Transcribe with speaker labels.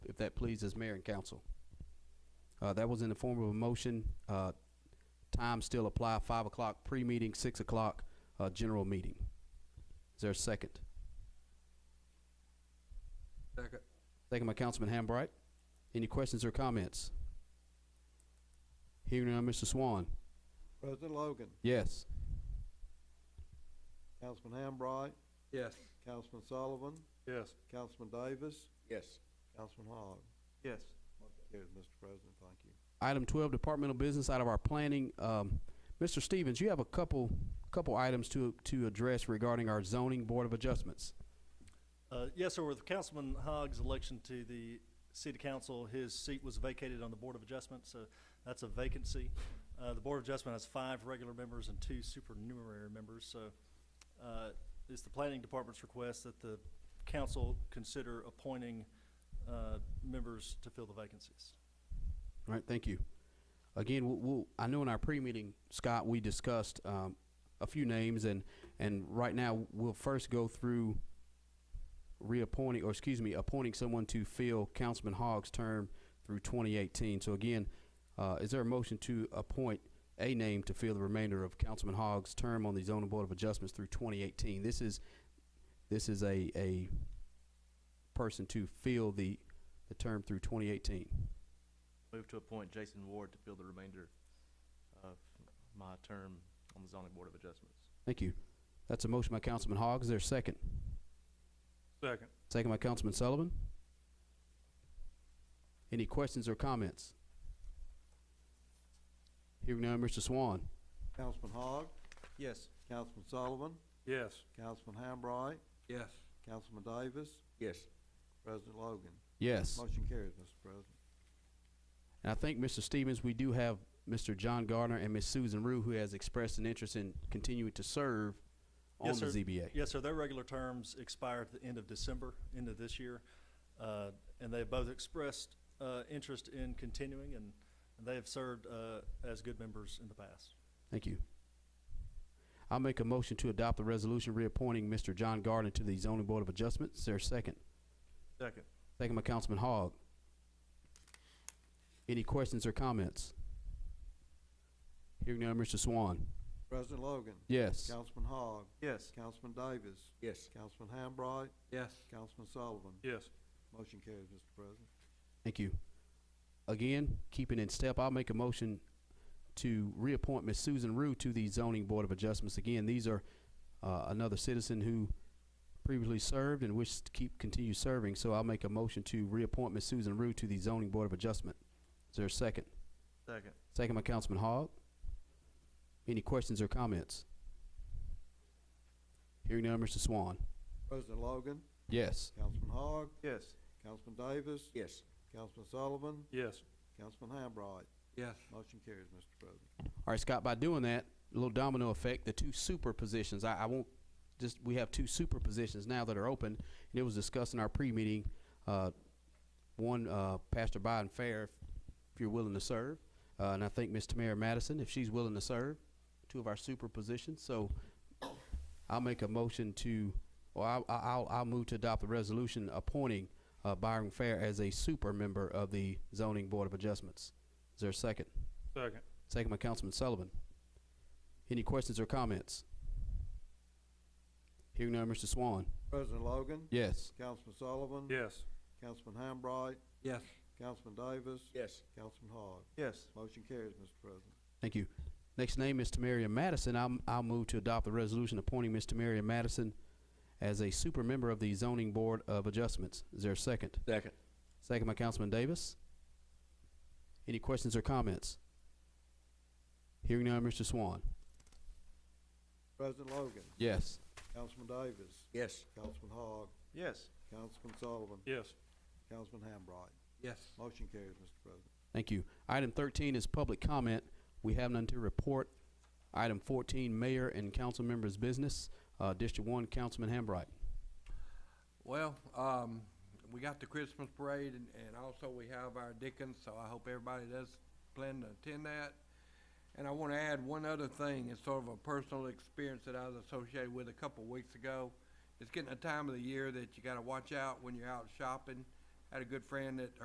Speaker 1: that pleases mayor and council. Uh, that was in the form of a motion. Uh, times still apply, five o'clock pre-meeting, six o'clock, uh, general meeting. Is there a second?
Speaker 2: Second.
Speaker 1: Second by Councilman Hambright. Any questions or comments? Hearing none, Mr. Swan.
Speaker 3: President Logan,
Speaker 1: Yes.
Speaker 3: Councilman Hambright,
Speaker 2: Yes.
Speaker 3: Councilman Sullivan,
Speaker 2: Yes.
Speaker 3: Councilman Davis,
Speaker 4: Yes.
Speaker 3: Councilman Hogg.
Speaker 2: Yes.
Speaker 3: Motion carries, Mr. President, thank you.
Speaker 1: Item twelve, departmental business out of our planning. Um, Mr. Stevens, you have a couple, couple items to, to address regarding our zoning board of adjustments.
Speaker 5: Uh, Yes, sir. With Councilman Hogg's election to the city council, his seat was vacated on the Board of Adjustment, so that's a vacancy. Uh, The Board of Adjustment has five regular members and two supernumerary members, so uh, it's the planning department's request that the council consider appointing uh, members to fill the vacancies.
Speaker 1: All right, thank you. Again, we'll, we'll, I know in our pre-meeting, Scott, we discussed, um, a few names and, and right now, we'll first go through reappointing, or excuse me, appointing someone to fill Councilman Hogg's term through twenty eighteen. So again, uh, is there a motion to appoint a name to fill the remainder of Councilman Hogg's term on the zoning board of adjustments through twenty eighteen? This is, this is a, a person to fill the, the term through twenty eighteen.
Speaker 6: Move to appoint Jason Ward to fill the remainder of my term on the zoning board of adjustments.
Speaker 1: Thank you. That's a motion by Councilman Hogg. Is there a second?
Speaker 2: Second.
Speaker 1: Second by Councilman Sullivan. Any questions or comments? Hearing none, Mr. Swan.
Speaker 3: Councilman Hogg,
Speaker 2: Yes.
Speaker 3: Councilman Sullivan,
Speaker 2: Yes.
Speaker 3: Councilman Hambright,
Speaker 2: Yes.
Speaker 3: Councilman Davis,
Speaker 4: Yes.
Speaker 3: President Logan.
Speaker 1: Yes.
Speaker 3: Motion carries, Mr. President.
Speaker 1: And I think, Mr. Stevens, we do have Mr. John Gardner and Ms. Susan Rue, who has expressed an interest in continuing to serve on
Speaker 5: Yes,
Speaker 1: the
Speaker 5: sir.
Speaker 1: ZBA.
Speaker 5: Yes, sir. Their regular terms expire at the end of December, end of this year. Uh, And they both expressed uh, interest in continuing, and and they have served uh, as good members in the past.
Speaker 1: Thank you. I'll make a motion to adopt the resolution reappointing Mr. John Gardner to the zoning board of adjustments. Is there a second?
Speaker 2: Second.
Speaker 1: Second by Councilman Hogg. Any questions or comments? Hearing none, Mr. Swan.
Speaker 3: President Logan,
Speaker 1: Yes.
Speaker 3: Councilman Hogg,
Speaker 2: Yes.
Speaker 3: Councilman Davis,
Speaker 4: Yes.
Speaker 3: Councilman Hambright,
Speaker 2: Yes.
Speaker 3: Councilman Sullivan.
Speaker 2: Yes.
Speaker 3: Motion carries, Mr. President.
Speaker 1: Thank you. Again, keeping in step, I'll make a motion to reappoint Ms. Susan Rue to the zoning board of adjustments. Again, these are, uh, another citizen who previously served and wishes to keep, continue serving. So I'll make a motion to reappoint Ms. Susan Rue to the zoning board of adjustment. Is there a second?
Speaker 2: Second.
Speaker 1: Second by Councilman Hogg. Any questions or comments? Hearing none, Mr. Swan.
Speaker 3: President Logan,
Speaker 1: Yes.
Speaker 3: Councilman Hogg,
Speaker 2: Yes.
Speaker 3: Councilman Davis,
Speaker 4: Yes.
Speaker 3: Councilman Sullivan,
Speaker 2: Yes.
Speaker 3: Councilman Hambright.
Speaker 2: Yes.
Speaker 3: Motion carries, Mr. President.
Speaker 1: All right, Scott, by doing that, a little domino effect, the two super positions, I, I won't, just, we have two super positions now that are open, and it was discussed in our pre-meeting, uh, one, uh, Pastor Biden Fair, if you're willing to serve, uh, and I think Ms. Tamara Madison, if she's willing to serve, two of our super positions, so I'll make a motion to, or I, I- I'll, I'll move to adopt the resolution appointing, uh, Byron Fair as a super member of the zoning board of adjustments. Is there a second?
Speaker 2: Second.
Speaker 1: Second by Councilman Sullivan. Any questions or comments? Hearing none, Mr. Swan.
Speaker 3: President Logan,
Speaker 1: Yes.
Speaker 3: Councilman Sullivan.
Speaker 2: Yes.
Speaker 3: Councilman Hambright,
Speaker 2: Yes.
Speaker 3: Councilman Davis,
Speaker 4: Yes.
Speaker 3: Councilman Hogg.
Speaker 2: Yes.
Speaker 3: Motion carries, Mr. President.
Speaker 1: Thank you. Next name is Tamaria Madison. I'm, I'll move to adopt the resolution appointing Ms. Tamaria Madison as a super member of the Zoning Board of Adjustments. Is there a second?
Speaker 4: Second.
Speaker 1: Second by Councilman Davis. Any questions or comments? Hearing none, Mr. Swan.
Speaker 3: President Logan,
Speaker 1: Yes.
Speaker 3: Councilman Davis,
Speaker 4: Yes.
Speaker 3: Councilman Hogg,
Speaker 2: Yes.
Speaker 3: Councilman Sullivan,
Speaker 2: Yes.
Speaker 3: Councilman Hambright.
Speaker 2: Yes.
Speaker 3: Motion carries, Mr. President.
Speaker 1: Thank you. Item thirteen is public comment. We have none to report. Item fourteen, mayor and council members' business. Uh, District one, Councilman Hambright.
Speaker 2: Well, um, we got the Christmas parade and, and also we have our Dickens, so I hope everybody does plan to attend that. And I wanna add one other thing, it's sort of a personal experience that I was associated with a couple weeks ago. It's getting a time of the year that you gotta watch out when you're out shopping. Had a good friend that